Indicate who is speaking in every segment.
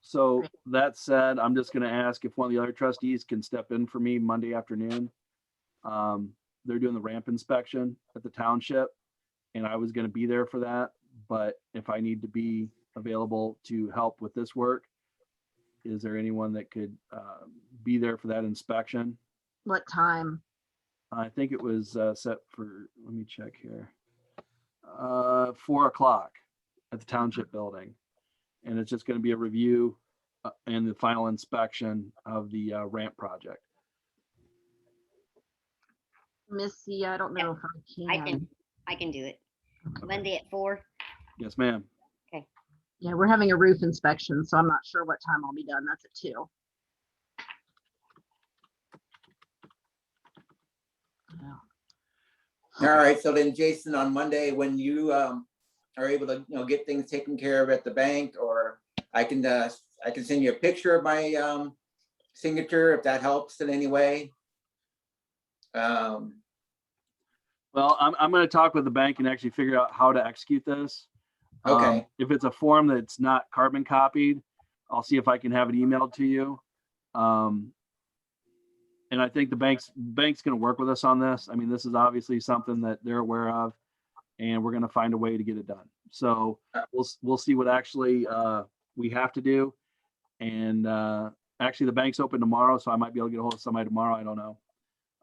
Speaker 1: So that said, I'm just gonna ask if one of the other trustees can step in for me Monday afternoon. Um, they're doing the ramp inspection at the township. And I was gonna be there for that, but if I need to be available to help with this work, is there anyone that could, uh, be there for that inspection?
Speaker 2: What time?
Speaker 1: I think it was, uh, set for, let me check here. Uh, four o'clock at the township building. And it's just gonna be a review uh, and the final inspection of the uh, ramp project.
Speaker 2: Missy, I don't
Speaker 3: Yeah,
Speaker 2: know if I
Speaker 3: I can,
Speaker 2: can.
Speaker 3: I can do it.
Speaker 2: Okay.
Speaker 3: Monday at four.
Speaker 1: Yes, ma'am.
Speaker 2: Yeah, we're having a roof inspection, so I'm not sure what time I'll be done. That's at two. Yeah.
Speaker 4: All right, so then Jason, on Monday, when you um are able to, you know, get things taken care of at the bank, or I can, uh I can send you a picture of my um signature, if that helps in any way. Um,
Speaker 1: Well, I'm, I'm gonna talk with the bank and actually figure out how to execute this. Um,
Speaker 4: Okay.
Speaker 1: If it's a form that's not carbon copied, I'll see if I can have it emailed to you. Um, and I think the bank's, bank's gonna work with us on this. I mean, this is obviously something that they're aware of and we're gonna find a way to get it done. So we'll, s- we'll see what actually, uh, we have to do. And, uh, actually the bank's open tomorrow, so I might be able to get a hold of somebody tomorrow. I don't know.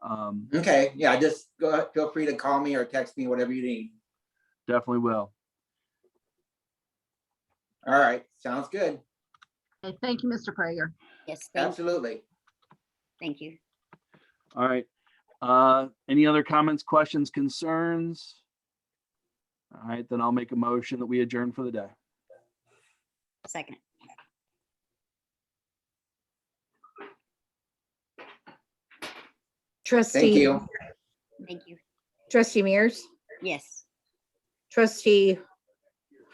Speaker 1: Um,
Speaker 4: okay, yeah, just go, feel free to call me or text me, whatever you need.
Speaker 1: definitely will.
Speaker 4: All right, sounds good.
Speaker 2: Okay, thank you, Mr. Prager.
Speaker 3: Yes, thank,
Speaker 4: Absolutely.
Speaker 3: thank you.
Speaker 1: All right. Uh, Any other comments, questions, concerns? All right, then I'll make a motion that we adjourn for the day.
Speaker 3: Second.
Speaker 4: Thank
Speaker 5: Trustee,
Speaker 4: you.
Speaker 3: Thank you.
Speaker 5: trustee Mears,
Speaker 3: Yes.
Speaker 5: trustee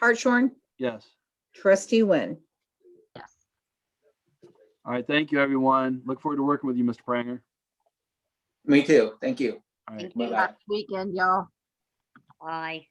Speaker 5: Hartshorn,
Speaker 1: Yes.
Speaker 5: trustee Wynn.
Speaker 2: Yes.
Speaker 1: All right, thank you, everyone. Look forward to working with you, Mr. Pranger.
Speaker 4: Me too. Thank you.
Speaker 1: All right.
Speaker 3: Thank you.
Speaker 4: Bye-bye.
Speaker 2: Happy weekend, y'all.
Speaker 3: Bye.